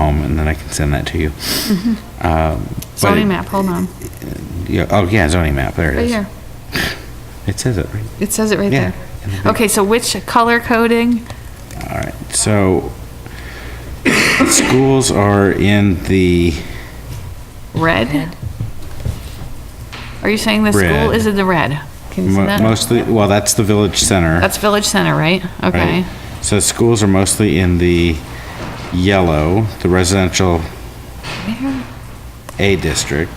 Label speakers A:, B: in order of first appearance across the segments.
A: home, and then I can send that to you. Um, but it-
B: Mm-hmm. Zoning map, hold on,
A: Yeah, oh, yeah, zoning map, there it
B: right
A: is.
B: here.
A: It says it, right?
B: It says it right
A: Yeah.
B: there. Okay, so which color coding?
A: All right, so schools are in the,
B: Red? Are you saying the school
A: Red.
B: is in the red? Can you see
A: mo-
B: that?
A: mostly, well, that's the village center.
B: That's Village Center, right?
A: right?
B: Okay.
A: So schools are mostly in the yellow, the residential A district.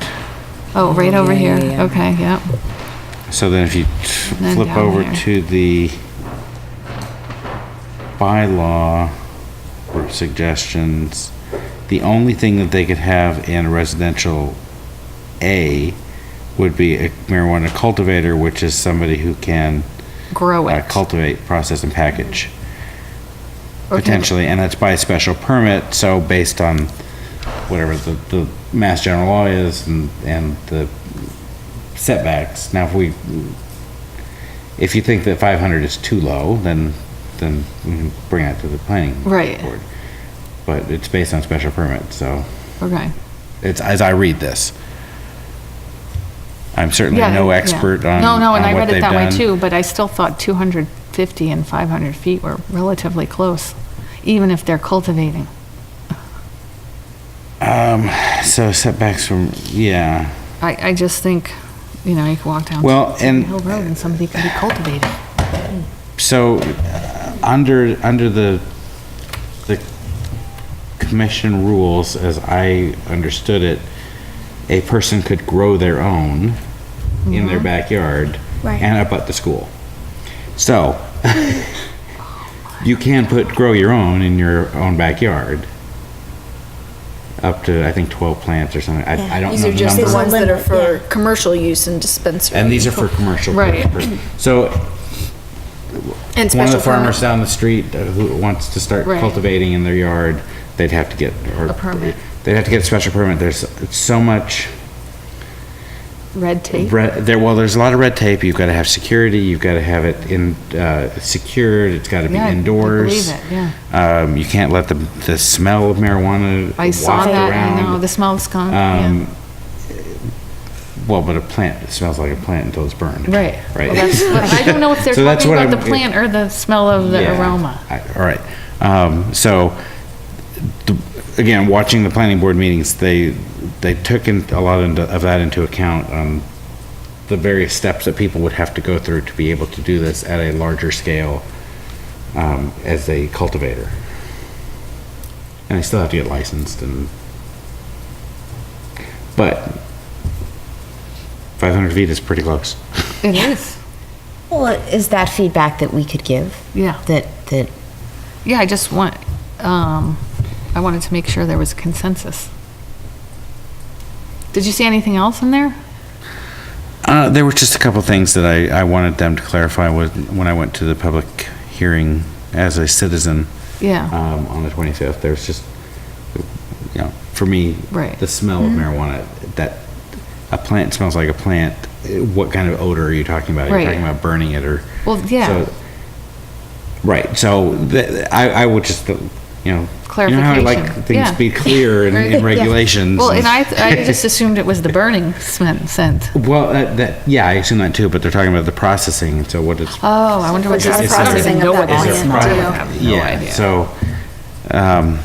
B: Oh, right over
C: yeah,
B: here.
C: yeah, yeah.
B: Okay, yep.
A: So then if you t-
B: Then
A: flip
B: down
A: over
B: there.
A: to the bylaw or suggestions, the only thing that they could have in residential A would be a marijuana cultivator, which is somebody who can
B: Grow
A: uh,
B: it.
A: cultivate, process, and package,
B: Okay.
A: potentially, and that's by a special permit, so based on whatever the, the mass general law is and, and the setbacks. Now, if we, if you think that five hundred is too low, then, then we can bring that to the planning.
B: Right.
A: board. But it's based on special permit, so
B: Okay.
A: it's, as I read this. I'm certainly
B: Yeah,
A: no
B: yeah.
A: expert on,
B: No, no, and
A: on
B: I
A: what
B: read it
A: they've
B: that way
A: done.
B: too, but I still thought 250 and 500 feet were relatively close, even if they're cultivating.
A: Um, So setbacks from, yeah.
B: I, I just think, you know, you could walk down.
A: Well,
B: Seven
A: and-
B: Hill Road and somebody could be cultivating.
A: So, uh, under, under the, the commission rules, as I understood it, a person could grow their own in their backyard
D: Right.
A: and up at the school. So, you can put, grow your own in your own backyard. Up to, I think, 12 plants or something. I, I don't
C: These
A: know
C: are
A: the
C: just the
A: number.
C: ones that are for
D: Yeah.
C: commercial use and dispensary.
A: And these are for commercial.
B: Right.
A: purposes. So,
C: And
A: one of
C: special
A: the farmers
C: permit.
A: down the street uh, who wants to start
B: Right.
A: cultivating in their yard, they'd have to get, or.
B: A permit.
A: They'd have to get a special permit. There's so much,
B: Red tape.
A: re- there, well, there's a lot of red tape. You've got to have security. You've got to have it in, uh, secured. It's got to be
B: Yeah, I
A: indoors.
B: believe it, yeah.
A: Um, you can't let the, the smell of marijuana
B: I saw
A: waft
B: that, I
A: around.
B: know, the smell of skunk, yeah.
A: Um, Well, but a plant, it smells like a plant until it's burned.
B: Right.
A: Right.
B: Well, that's what- I don't know if they're
A: So that's
B: talking
A: what
B: about the
A: I'm-
B: plant or the smell of the
A: Yeah.
B: aroma.
A: I- All right. Um, so, the- again, watching the planning board meetings, they, they took in, a lot into- of that into account on the various steps that people would have to go through to be able to do this at a larger scale um, as a cultivator. And they still have to get licensed and, but 500 feet is pretty close.
B: It is,
E: Well, is that feedback that we could give?
B: yeah.
E: That, that,
B: Yeah, I just want, um, I wanted to make sure there was consensus. Did you see anything else in there?
A: Uh, there were just a couple things that I, I wanted them to clarify with, when I went to the public hearing as a citizen
B: Yeah,
A: um, on the 25th. There was just, you know, for me,
B: Right. Mm-hmm.
A: the smell of marijuana, that a plant smells like a plant. eh, What kind of odor are you talking about? Are
B: Right.
A: you talking about burning it or?
B: Well, yeah.
A: so- right. So th- I, I would just, uh, you know, you know how I
B: Clarification,
A: like things
B: yeah.
A: be clear in, in regulations.
B: well, and I, I just assumed it was the burning smen- scent.
A: Well, that, that, yeah, I assume that too, but they're talking about the processing, and so what it's.
B: Oh, I wonder what
C: It's
B: that is.
A: a
B: I don't even
C: processing
B: know
C: of
B: what
C: that
B: that
A: is
B: is.
A: a
C: plant,
B: I
C: too.
B: have no
A: Yeah,
B: idea.
A: so, um,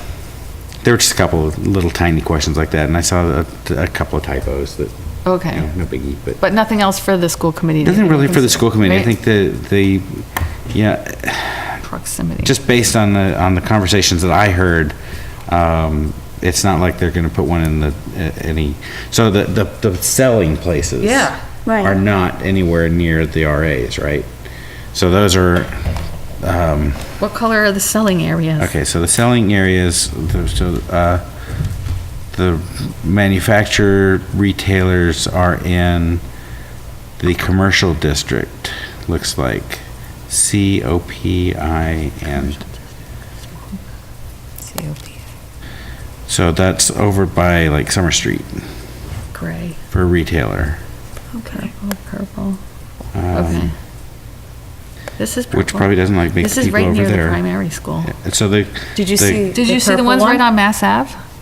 A: there were just a couple of little tiny questions like that, and I saw a, a couple of typos that, you
B: Okay,
A: know, no biggie, but.
B: but nothing else for the school committee? that
A: Nothing
B: you
A: really for the
B: consider,
A: school committee. I
B: right?
A: think the, the, yeah,
B: Proximity.
A: just based on the, on the conversations that I heard, um, it's not like they're gonna put one in the, uh, any, so the, the, the selling places.
B: Yeah,
D: right.
A: Are not anywhere near the RAs, right? So those are, um,
B: What color are the selling areas?
A: okay, so the selling areas, the- so, uh, the manufacturer retailers are in the commercial district, looks like. C O P I and So that's over by like Summer Street
B: Gray,
A: for a retailer,
D: Okay.
B: purple, purple. Okay.
A: um,
B: This is purple.
A: which probably doesn't like big
B: This is
A: people
B: right
A: over
B: near the
A: there.
B: primary school.
A: And so they.
C: Did you
A: they-
C: see?
B: Did you see the
C: purple
B: ones
C: one?
B: right on Mass Ave?